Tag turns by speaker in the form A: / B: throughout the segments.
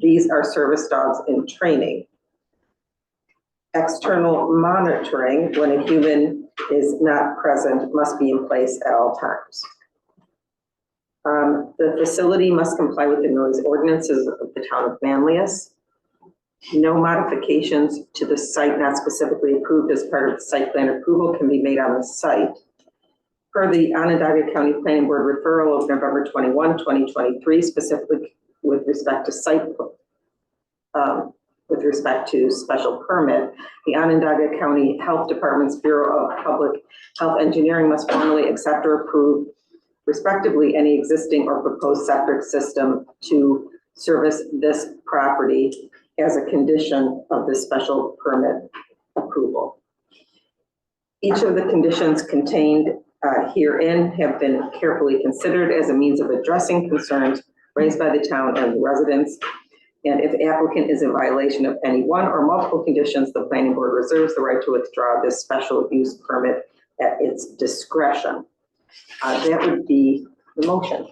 A: These are service dogs in training. External monitoring, when a human is not present, must be in place at all times. Um, the facility must comply with the noise ordinances of the town of Manlius. No modifications to the site not specifically approved as part of the site plan approval can be made on the site. Per the Onondaga County Planning Board referral of November 21, 2023, specifically with respect to site, um, with respect to special permit, the Onondaga County Health Department's Bureau of Public Health Engineering must formally accept or approve respectively any existing or proposed septic system to service this property as a condition of the special permit approval. Each of the conditions contained uh, herein have been carefully considered as a means of addressing concerns raised by the town and residents. And if the applicant is in violation of any one or multiple conditions, the planning board reserves the right to withdraw this special use permit at its discretion. Uh, That would be the motion.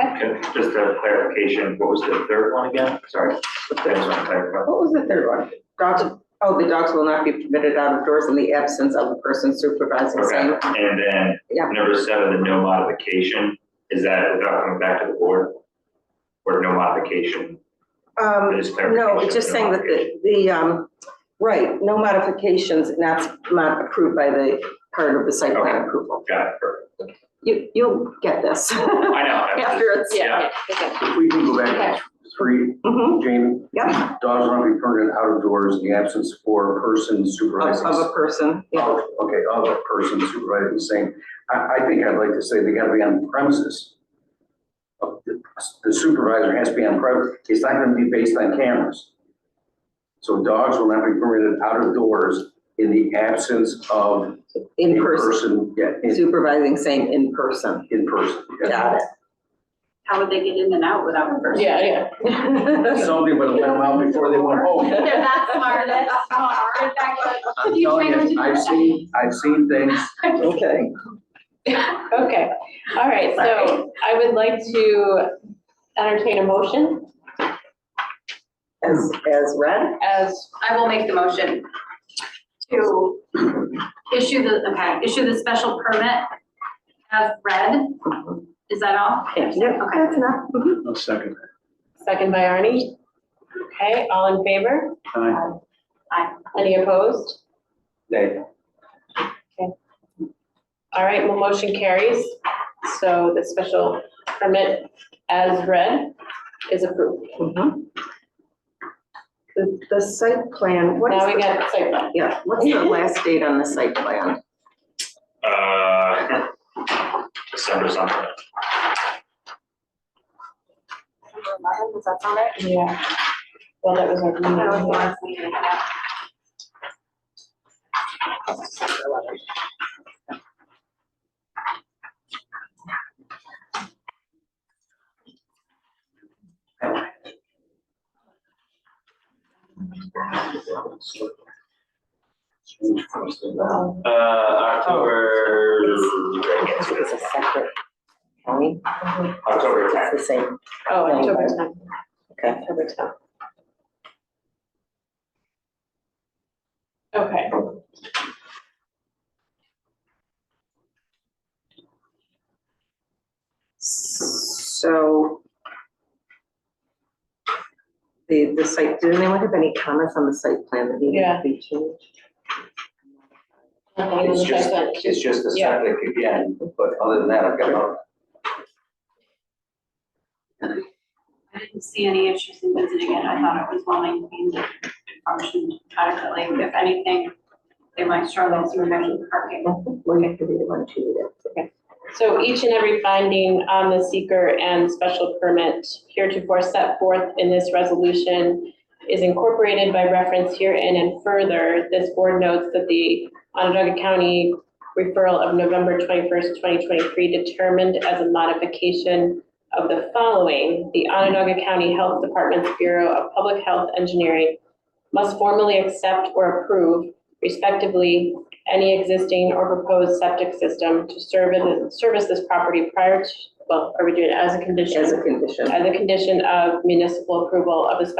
B: Okay, Just a clarification, what was the third one again? Sorry, I just want to clarify.
A: What was the third one? Dogs, oh, the dogs will not be permitted out of doors in the absence of a person supervising same.
B: Okay, and then
A: Yeah.
B: number seven, the no modification, is that without coming back to the board? Or no modification?
A: Um,
B: Just
A: no,
B: clarification,
A: it's just saying that the, the, um, right, no modifications, and that's not approved by the part of the site plan
B: Okay.
A: approval.
B: Got it, perfect.
A: You, you'll get this.
B: I know. I'm just-
A: After it's,
B: Yeah.
C: Yeah, okay.
D: If we can go back to three,
A: Mhm,
D: Jamie,
A: yep,
D: dogs are not be permitted out of doors in the absence or person
A: of,
D: supervising. Oh,
A: of a person, yeah.
D: Okay, of a person supervising same. I, I think I'd like to say they gotta be on premises. Uh, The the supervisor has to be on premise. It's not gonna be based on cameras. So dogs will not be permitted out of doors in the absence of
A: In
D: a
A: person,
D: person, yeah, in,
A: supervising same in person.
D: in person.
A: Got
E: How would they get in and out without a person?
C: Yeah, yeah.
A: it.
D: Somebody would have let them out before they went home.
E: They're that smart, that's smart. In fact,
D: I'm
E: You
D: telling
E: trained
D: you,
E: them to do
D: I've
E: that.
D: seen, I've seen things
A: Okay.
C: Okay, all right, so I would like to entertain a motion
A: As, as read?
C: as,
E: I will make the motion to issue the, okay, issue the special permit as read. Is that all?
A: Yeah, that's enough. Mhm.
F: I'll second that.
C: second by Arnie. Okay, all in favor?
D: uh,
F: Aye.
E: Aye.
C: Any opposed?
D: that
C: All right, well, motion carries. So the special permit as read is approved.
A: Mhm. The, the site plan, what is
C: Now
A: the
C: we got site plan.
A: Yeah, what's the last date on the site plan?
B: Uh, December something.
E: Does that sound right?
C: Yeah. Well, that was our.
E: That was the
C: meeting.
E: last meeting. yeah.
B: Uh, October,
A: It's a separate county,
B: October
A: it's
B: tenth.
A: the same.
C: Oh, October tenth.
A: Okay.
C: October tenth. Okay.
A: So the, the site, did anyone have any comments on the site plan that needed to
C: Yeah.
A: be changed?
C: Nothing in the
D: It's
C: site
D: just,
C: plan.
D: it's just the
C: Yeah.
D: septic again, but other than that, I've got no.
E: I didn't see any issues in visiting it. I thought it was well maintained, it functioned adequately. If anything, they might struggle to remember parking.
A: We're going to be the one to do
C: So each and every finding on the seeker and special permit heretofore set forth in this resolution is incorporated by reference herein and further, this board notes that the Onondaga County referral of November twenty-first, twenty twenty-three determined as a modification of the following, the Onondaga County Health Department's Bureau of Public Health Engineering must formally accept or approve respectively any existing or proposed septic system to serve in, service this property prior to, well, are we doing it as a
A: this
C: condition?
A: as a condition.
C: As a condition of municipal approval of a special